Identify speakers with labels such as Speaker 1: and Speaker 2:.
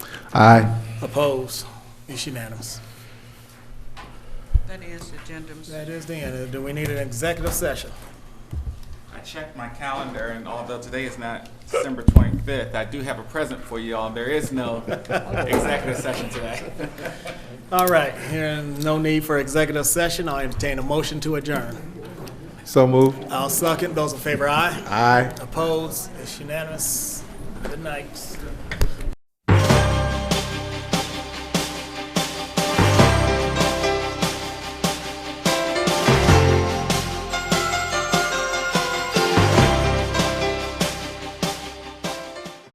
Speaker 1: Aye.
Speaker 2: Opposed? It's unanimous.
Speaker 3: That is agenda, Mr.
Speaker 2: That is the end. Do we need an executive session?
Speaker 4: I checked my calendar, and although today is not December 25th, I do have a present for you all. There is no executive session today.
Speaker 2: All right, hearing no need for executive session, I'll entertain a motion to adjourn.
Speaker 1: So moved.
Speaker 2: I'll second. Those in favor, aye.
Speaker 1: Aye.
Speaker 2: Opposed? It's unanimous. Good night.